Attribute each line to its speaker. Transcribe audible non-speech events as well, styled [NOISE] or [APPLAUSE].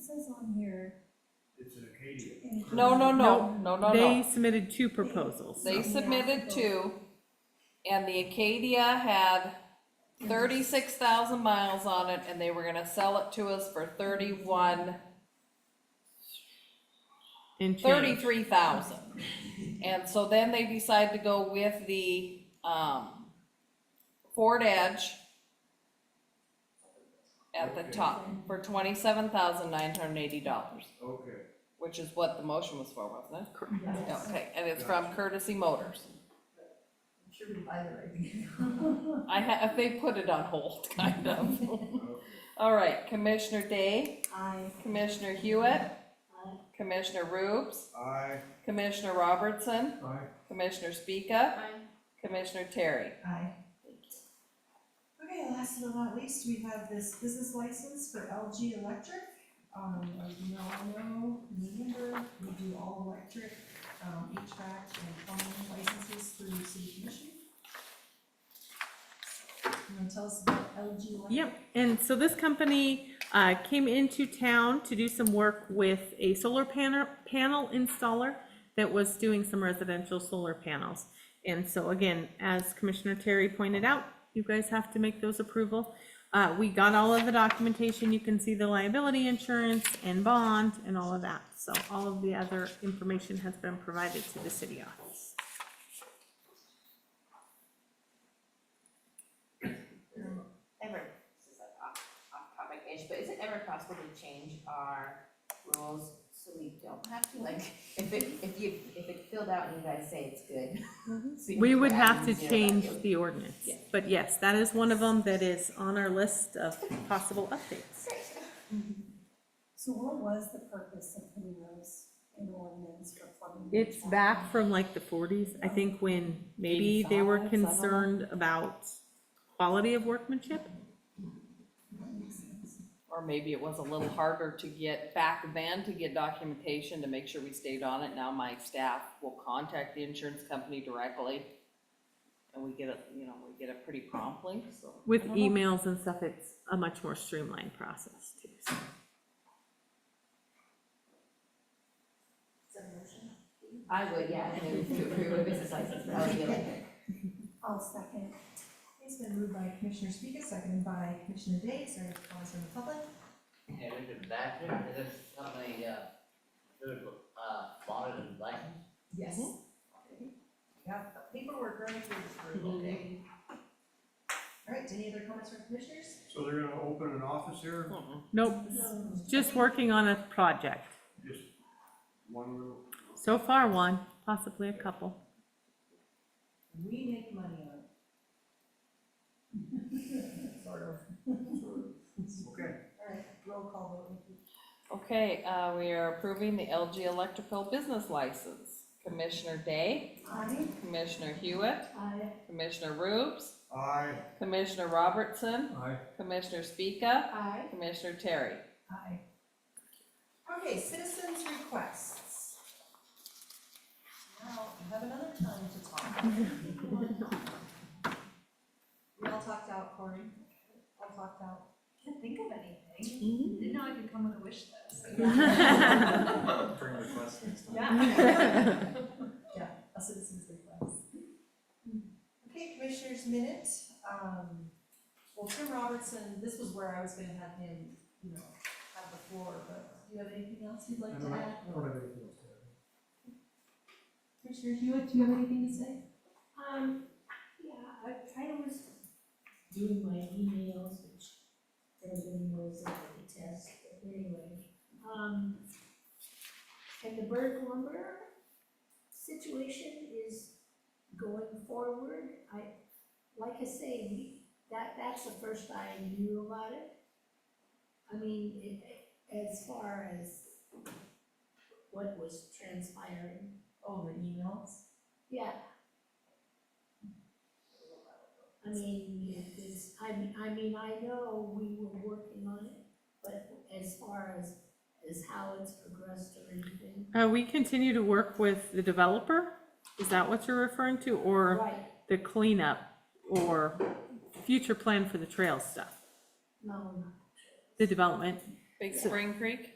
Speaker 1: says on here,
Speaker 2: It's an Acadia.
Speaker 1: and-
Speaker 3: No, no, no, no, no,
Speaker 4: They
Speaker 3: no.
Speaker 4: submitted two proposals.
Speaker 3: They
Speaker 1: Yeah.
Speaker 3: submitted two, and the Acadia had thirty-six thousand miles on it, and they were gonna sell it to us for thirty-one,
Speaker 4: and change.
Speaker 3: thirty-three thousand. And so then they decided to go with the, um, Ford Edge at the
Speaker 2: Okay.
Speaker 3: top for twenty-seven thousand nine hundred and eighty dollars,
Speaker 2: Okay,
Speaker 3: which is what the motion was for, wasn't it?
Speaker 1: Yeah.
Speaker 3: Okay, and it's from Courtesy Motors.
Speaker 5: I'm sure we buy the right thing.
Speaker 3: I ha they put it on hold, [LAUGHS] kind of. All right, Commissioner Day,
Speaker 1: I,
Speaker 3: Commissioner Hewitt, Commissioner Rubes,
Speaker 2: I,
Speaker 3: Commissioner Robertson,
Speaker 2: I,
Speaker 3: Commissioner Speaka, Commissioner Terry.
Speaker 5: Aye.
Speaker 1: okay, last but not least, we have this business license for LG Electric. Um, as you all know, remember, we do all electric, um, HVAC and plumbing licenses through the city commission. So, You wanna tell us about LG Electric?
Speaker 4: Yep, and so this company uh, came into town to do some work with a solar panel, panel installer that was doing some residential solar panels. And so again, as Commissioner Terry pointed out, you guys have to make those approval. Uh, We got all of the documentation, you can see the liability insurance and bond and all of that. So all of the other information has been provided to the city office.
Speaker 6: ever, this is like off, off topic-ish, but is it ever possible to change our rules so we don't have to, like, [LAUGHS] if it, if you, if it filled out and you guys say it's good? [LAUGHS] so you
Speaker 4: Mm-hmm. We
Speaker 6: can
Speaker 4: would
Speaker 6: go back
Speaker 4: have to
Speaker 6: and zero
Speaker 4: change
Speaker 6: back in.
Speaker 4: the ordinance,
Speaker 6: Yeah.
Speaker 4: but yes, that is one of them that is on our list of possible updates.
Speaker 1: So what was the purpose of putting those in ordinance for plumbing? and
Speaker 4: It's back from like the forties, I think, when maybe they were
Speaker 3: 85, something.
Speaker 4: concerned about quality of workmanship.
Speaker 1: That makes sense.
Speaker 3: Or maybe it was a little harder to get back then to get documentation to make sure we stayed on it. Now my staff will contact the insurance company directly. And we get it, you know, we get it pretty promptly, so.
Speaker 4: With
Speaker 3: I don't know.
Speaker 4: emails and stuff, it's a much more streamlined process too. so.
Speaker 5: Is that a motion?
Speaker 6: I would, yeah, I would to approve a business license for LG Electric.
Speaker 1: I'll second.
Speaker 5: It's been moved by Commissioner Speaker, seconded by Commissioner Day, is there any comments from the public?
Speaker 7: And in the bathroom, is there something, uh, there's, uh, bonnet and blanket?
Speaker 5: Yes. Yeah, the paperwork ready for approval.
Speaker 7: Mhm.
Speaker 5: All right, any other comments from commissioners?
Speaker 2: so they're gonna open an office here,
Speaker 4: Nope,
Speaker 1: No.
Speaker 4: just working on a project.
Speaker 2: just one room?
Speaker 4: So far, one, possibly a couple. [LAUGHS]
Speaker 5: We make money on it. Sort of.
Speaker 2: Okay.
Speaker 5: All right, roll call vote.
Speaker 3: Okay, uh, we are approving the LG Electrical Business License. Commissioner Day,
Speaker 1: Aye.
Speaker 3: Commissioner Hewitt,
Speaker 1: Aye.
Speaker 3: Commissioner Rubes,
Speaker 2: I,
Speaker 3: Commissioner Robertson,
Speaker 2: I,
Speaker 3: Commissioner Speaka,
Speaker 1: Aye.
Speaker 3: Commissioner Terry.
Speaker 5: Aye. Okay, citizens' requests. Now, I have another time to talk. We all talked out, Cory. All talked out.
Speaker 1: Can't think of anything. Didn't know I could come with a wish list.
Speaker 8: [LAUGHS]
Speaker 1: [LAUGHS]
Speaker 8: Bring requests next time.
Speaker 5: Yeah. Yeah, a citizen's request. Hmm. Okay, commissionner's minute, um, well, Tim Robertson, this was where I was gonna have him, you know, have the floor, but do you have anything else you'd like
Speaker 2: I
Speaker 5: to
Speaker 2: don't have,
Speaker 5: add?
Speaker 2: I don't have anything else to add.
Speaker 5: Commissioner Hewitt, do you have anything to say?
Speaker 9: Um, yeah, I kind of was doing my emails, which everybody knows that I detest, but anyway. Um, and the Berg lumber situation is going forward. I, like I say, we- that, that's the first I knew about it. I mean, it, as far as what was transpiring.
Speaker 5: Oh, the emails?
Speaker 9: Yeah. I mean, it's, I mean, I mean, I know we were working on it, but as far as, as how it's progressed or anything.
Speaker 4: Uh, we continue to work with the developer, is that what you're referring to, or?
Speaker 9: Right,
Speaker 4: the cleanup or future plan for the trail stuff,
Speaker 9: no,
Speaker 4: the development.
Speaker 3: Big Spring Creek?